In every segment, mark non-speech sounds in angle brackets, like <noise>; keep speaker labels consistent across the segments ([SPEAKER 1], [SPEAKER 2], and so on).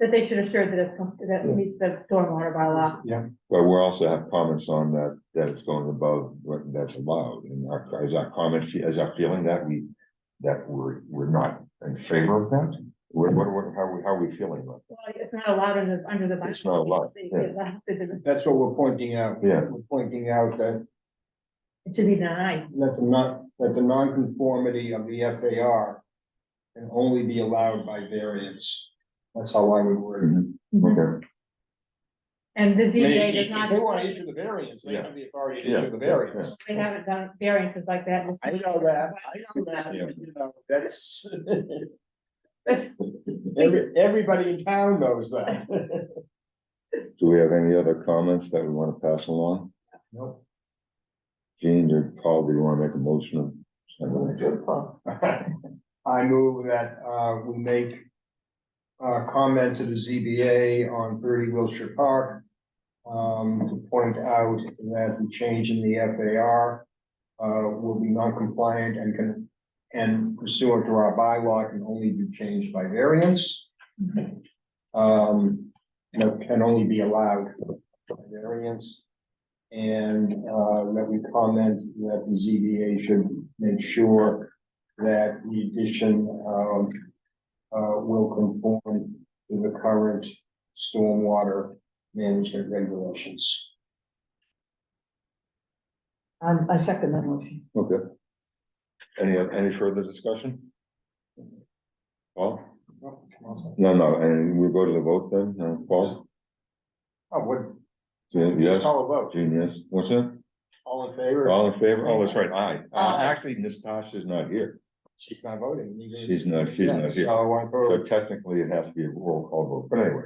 [SPEAKER 1] that they should assure that it, com- that it meets the stormwater bylaw.
[SPEAKER 2] But we also have comments on that, that it's going above what that's allowed, and our, is our comment, is our feeling that we. That we're, we're not in favor of that, what, what, what- how, we- how are we feeling about
[SPEAKER 1] Well, It's not allowed under, under the. bylaw.
[SPEAKER 2] It's not allowed,
[SPEAKER 1] They-
[SPEAKER 2] yeah.
[SPEAKER 1] they have to do
[SPEAKER 3] That's what we're pointing out.
[SPEAKER 2] Yeah.
[SPEAKER 3] We're pointing out that,
[SPEAKER 1] It should be denied.
[SPEAKER 3] that the not, that the nonconformity of the FAR can only be allowed by variance. That's how I would word it.
[SPEAKER 1] Mm-hmm.
[SPEAKER 2] that? Okay,
[SPEAKER 1] And the
[SPEAKER 3] I mean,
[SPEAKER 1] ZBA does
[SPEAKER 3] If
[SPEAKER 1] not.
[SPEAKER 3] if they want to issue the variance, they
[SPEAKER 2] Yeah.
[SPEAKER 3] have the authority to
[SPEAKER 2] Yeah,
[SPEAKER 3] issue the
[SPEAKER 2] yeah,
[SPEAKER 3] variance.
[SPEAKER 1] They haven't done variances like that. in this-
[SPEAKER 3] I know that, I know that,
[SPEAKER 2] Yeah.
[SPEAKER 3] you know, that's. <laughs>
[SPEAKER 1] <laughs> But
[SPEAKER 3] Every- Everybody in town knows that.
[SPEAKER 1] <laughs>
[SPEAKER 2] do we have any other comments that we wanna pass along?
[SPEAKER 3] Nope.
[SPEAKER 2] Gene or Paul, do you wanna make a motion? of-
[SPEAKER 3] I move that, uh, we make. Uh, comment to the ZBA on thirty Wilshire Park. Um, to point out that the change in the FAR. Uh, will be non-compliant and can, and pursuant to our bylaw can only be changed by variance. Um, you know, can only be allowed by variance. And, uh, that we comment that the ZBA should make sure that the addition, um, uh, will conform to the current stormwater management regulations.
[SPEAKER 4] Um, I second that motion.
[SPEAKER 2] Okay. Any, any further discussion? Paul?
[SPEAKER 3] Oh,
[SPEAKER 2] No, no, and we'll go to the vote then, uh, Paul?
[SPEAKER 3] what,
[SPEAKER 2] Gene,
[SPEAKER 3] just
[SPEAKER 2] Yes,
[SPEAKER 3] call a vote.
[SPEAKER 2] Gene, yes, what's that?
[SPEAKER 3] All in favor?
[SPEAKER 2] All in favor? Oh, that's right, aye. Uh,
[SPEAKER 3] Aye.
[SPEAKER 2] actually, Natasha's not here.
[SPEAKER 3] She's not voting. You didn't-
[SPEAKER 2] She's not, she's
[SPEAKER 3] Yeah,
[SPEAKER 2] not here.
[SPEAKER 3] So I
[SPEAKER 2] So
[SPEAKER 3] vote.
[SPEAKER 2] technically, it has to be a roll call vote, but anyway,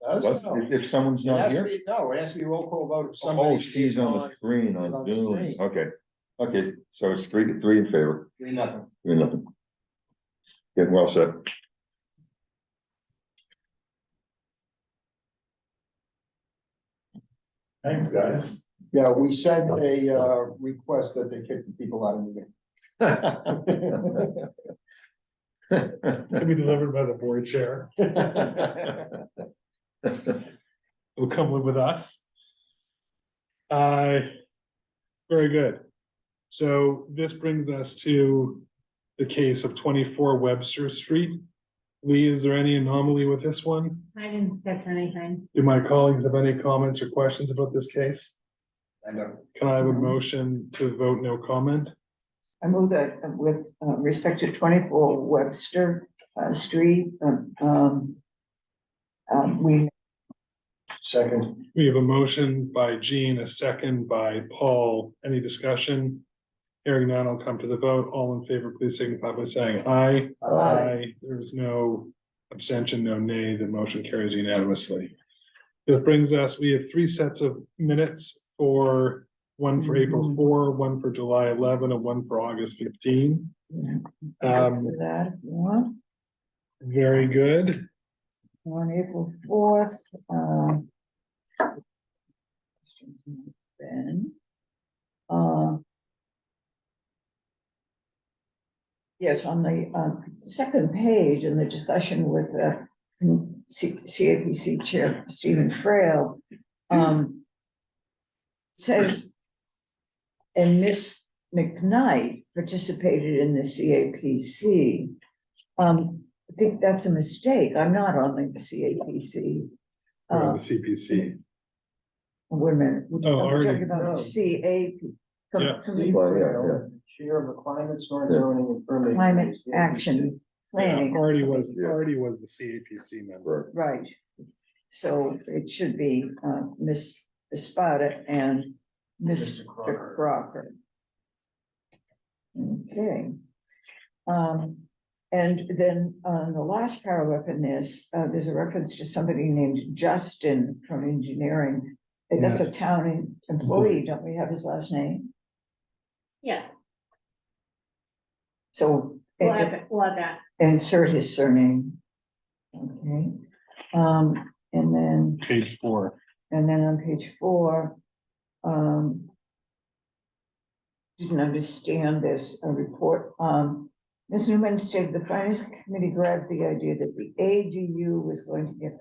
[SPEAKER 3] That's-
[SPEAKER 2] let's-
[SPEAKER 3] no.
[SPEAKER 2] if, if someone's
[SPEAKER 3] It
[SPEAKER 2] not
[SPEAKER 3] has to
[SPEAKER 2] here.
[SPEAKER 3] be, no, it has to be roll call vote if somebody.
[SPEAKER 2] Oh, she's on the screen
[SPEAKER 3] on
[SPEAKER 2] on
[SPEAKER 3] the
[SPEAKER 2] Zoom.
[SPEAKER 3] screen.
[SPEAKER 2] Okay, okay, so it's three, three in favor,
[SPEAKER 3] Three, nothing.
[SPEAKER 2] three nothing. Get well said.
[SPEAKER 3] <laughs>
[SPEAKER 5] Thanks, guys.
[SPEAKER 3] Yeah, we sent a, uh, request that they kick the people out of the meeting.
[SPEAKER 5] To be delivered by the board chair. Will come live with us. Uh, very good. So this brings us to the case of twenty-four Webster Street. Lee, is there any anomaly with this one?
[SPEAKER 1] I didn't catch anything.
[SPEAKER 5] Do my colleagues have any comments or questions about this case?
[SPEAKER 3] I know.
[SPEAKER 5] Can I have a motion to vote no comment?
[SPEAKER 4] I move that uh, with uh, respect to twenty-four Webster uh, Street, um, um, um, we,
[SPEAKER 3] Second,
[SPEAKER 5] We have a motion by Jean, a second by Paul. Any discussion? Hearing none, I'll come to the vote. All in favor, please signify by saying aye.
[SPEAKER 4] uh,
[SPEAKER 5] Aye. There's no abstention, no nay. The motion carries unanimously. This brings us, we have three sets of minutes for one for April four, one for July eleven, and one for August fifteen. Um,
[SPEAKER 4] after that, if you want,
[SPEAKER 5] very good.
[SPEAKER 4] on April fourth, um. Ben. Uh. Yes, on the, um, second page in the discussion with, uh, C- CAPC Chair Stephen Frail, um. Says. And Miss McKnight participated in the CAPC. Um, I think that's a mistake. I'm not on the CAPC.
[SPEAKER 5] We're on
[SPEAKER 4] Uh,
[SPEAKER 5] the CPC.
[SPEAKER 4] wait a minute. We're
[SPEAKER 5] Oh, already.
[SPEAKER 4] talking
[SPEAKER 3] No.
[SPEAKER 4] about CAP. com-
[SPEAKER 5] Yeah.
[SPEAKER 4] com-
[SPEAKER 3] Chair of the Climate, Storm Zoning and Permitting.
[SPEAKER 4] Climate Action Planning.
[SPEAKER 5] Artie was,
[SPEAKER 2] Yeah.
[SPEAKER 5] Artie was the CAPC member.
[SPEAKER 2] Right.
[SPEAKER 4] Right. So it should be uh, Ms. Espada and
[SPEAKER 3] Mr.
[SPEAKER 4] Mr.
[SPEAKER 3] Crocker.
[SPEAKER 4] Crocker. Okay. Um, And then on the last paragraph in this, uh, there's a reference to somebody named Justin from engineering. And That's a
[SPEAKER 5] Yes.
[SPEAKER 4] town employee, don't we have his last name?
[SPEAKER 1] Yes,
[SPEAKER 4] So.
[SPEAKER 1] we'll have, it- we'll have that.
[SPEAKER 4] Insert his surname. Okay, um, and then,
[SPEAKER 5] Page four.
[SPEAKER 4] and then on page four, um. Didn't understand this, a report, um, Ms. Newman stated the finance committee grabbed the idea that the ADU was going to get